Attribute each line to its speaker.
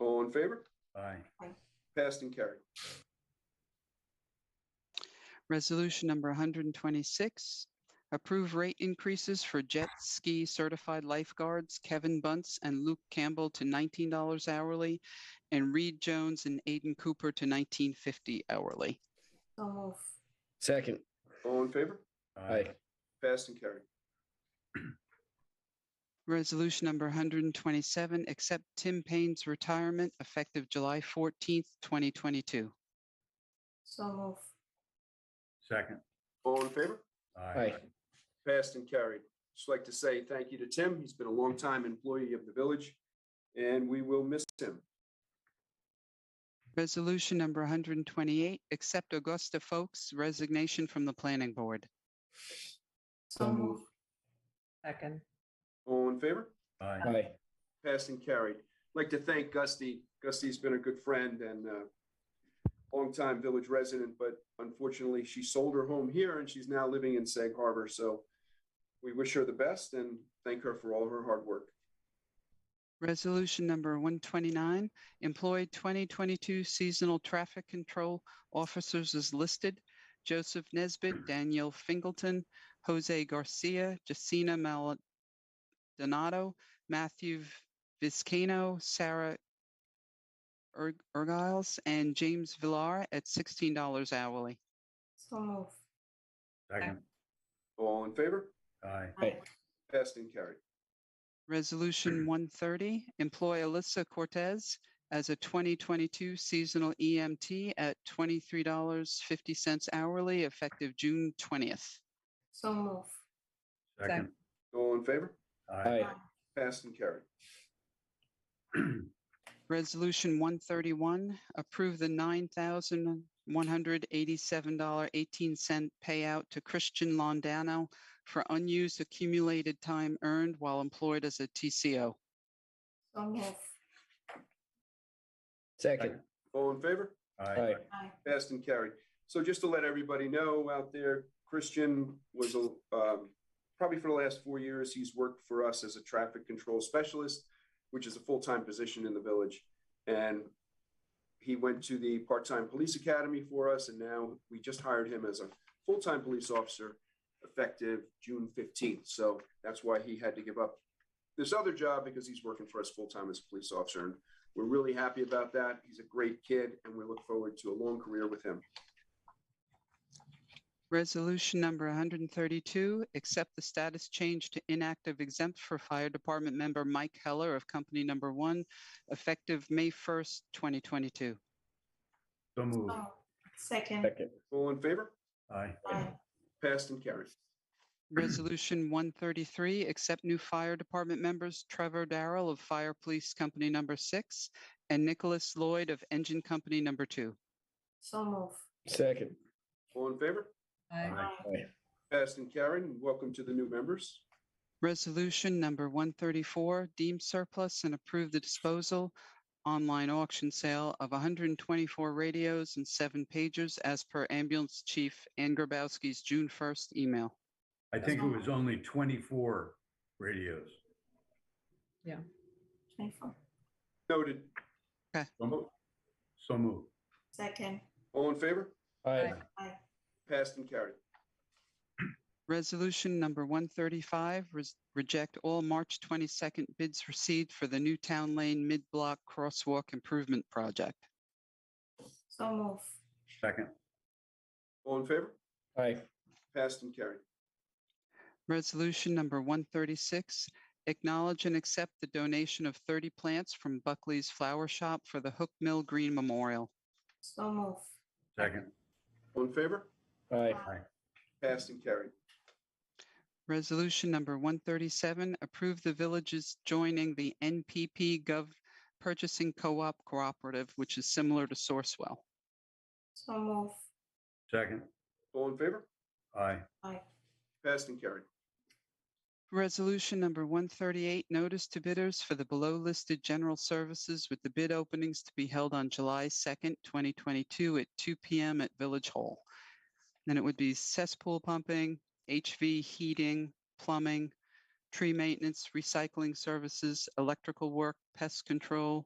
Speaker 1: in favor?
Speaker 2: Aye.
Speaker 1: Passed and carried.
Speaker 3: Resolution number 126, approve rate increases for jet ski certified lifeguards Kevin Bunce and Luke Campbell to $19 hourly and Reed Jones and Aiden Cooper to $19.50 hourly.
Speaker 4: so move,
Speaker 5: second,
Speaker 1: All in favor?
Speaker 5: aye,
Speaker 1: Passed and carried.
Speaker 3: Resolution number 127, accept Tim Payne's retirement effective July 14th, 2022.
Speaker 4: so move,
Speaker 2: Second.
Speaker 1: All in favor? Passed and carried. Just like to say thank you to Tim. He's been a longtime employee of the village, and we will miss him.
Speaker 3: Resolution number 128, accept Augusta Folks' resignation from the planning board.
Speaker 4: so move,
Speaker 6: second,
Speaker 1: All in favor?
Speaker 2: Aye.
Speaker 5: aye,
Speaker 1: Passed and carried. Like to thank Gusty. Gusty's been a good friend and uh longtime village resident, but unfortunately, she sold her home here and she's now living in Sag Harbor. So we wish her the best and thank her for all her hard work.
Speaker 3: Resolution number 129, employ 2022 seasonal traffic control officers as listed. Joseph Nesbit, Daniel Fingleton, Jose Garcia, Jacina Maldonado, Matthew Viscano, Sarah Erg- Ergiles, and James Villar at $16 hourly.
Speaker 4: so move,
Speaker 2: Second.
Speaker 1: All in favor?
Speaker 2: Aye.
Speaker 5: aye,
Speaker 1: Passed and carried.
Speaker 3: Resolution 130, employ Alyssa Cortez as a 2022 seasonal EMT at $23.50 hourly effective June 20th.
Speaker 4: so move,
Speaker 2: Second.
Speaker 1: All in favor?
Speaker 5: aye,
Speaker 1: Passed and carried.
Speaker 3: Resolution 131, approve the $9,187.18 payout to Christian Londano for unused accumulated time earned while employed as a TCO.
Speaker 4: so move,
Speaker 5: second,
Speaker 1: All in favor?
Speaker 5: aye,
Speaker 4: aye,
Speaker 1: Passed and carried. So just to let everybody know out there, Christian was, a- um, probably for the last four years, he's worked for us as a traffic control specialist, which is a full-time position in the village. And he went to the part-time police academy for us, and now we just hired him as a full-time police officer effective June fifteenth. So that's why he had to give up this other job because he's working for us full-time as a police officer. And we're really happy about that. He's a great kid, and we look forward to a long career with him.
Speaker 3: Resolution number 132, accept the status change to inactive exempt for Fire Department member Mike Heller of Company Number One, effective May 1st, 2022.
Speaker 2: So
Speaker 4: so
Speaker 2: moved.
Speaker 4: move, second,
Speaker 5: second,
Speaker 1: All in favor?
Speaker 2: Aye.
Speaker 4: aye,
Speaker 1: Passed and carried.
Speaker 3: Resolution 133, accept new Fire Department members Trevor Darrell of Fire Police Company Number Six and Nicholas Lloyd of Engine Company Number Two.
Speaker 4: so move,
Speaker 5: second,
Speaker 1: All in favor?
Speaker 2: Aye.
Speaker 6: aye,
Speaker 4: aye,
Speaker 5: aye,
Speaker 1: Passed and carried. And Welcome to the new members.
Speaker 3: Resolution number 134, deem surplus and approve the disposal online auction sale of 124 radios and seven pagers as per ambulance chief Ann Grabowski's June 1st email.
Speaker 2: I think it was only 24 radios.
Speaker 4: twenty-four,
Speaker 1: Noted.
Speaker 2: So moved. So moved.
Speaker 4: second,
Speaker 1: All in favor?
Speaker 5: aye,
Speaker 4: aye,
Speaker 1: Passed and carried.
Speaker 3: Resolution number 135, res- reject all March 22nd bids received for the new Town Lane Mid-Block Crosswalk Improvement Project.
Speaker 4: so move,
Speaker 2: Second.
Speaker 1: All in favor?
Speaker 5: aye,
Speaker 1: Passed and carried.
Speaker 3: Resolution number 136, acknowledge and accept the donation of 30 plants from Buckley's Flower Shop for the Hook Mill Green Memorial.
Speaker 4: so move,
Speaker 2: Second.
Speaker 1: All in favor?
Speaker 5: aye,
Speaker 1: Passed and carried.
Speaker 3: Resolution number 137, approve the villages joining the NPP Gov Purchasing Co-op Cooperative, which is similar to Sourcewell.
Speaker 4: so move,
Speaker 2: Second.
Speaker 1: All in favor?
Speaker 2: Aye.
Speaker 4: aye,
Speaker 1: Passed and carried.
Speaker 3: Resolution number 138, notice to bidders for the below-listed general services with the bid openings to be held on July 2nd, 2022 at 2 PM at Village Hall. Then it would be cesspool pumping, HV heating, plumbing, tree maintenance, recycling services, electrical work, pest control,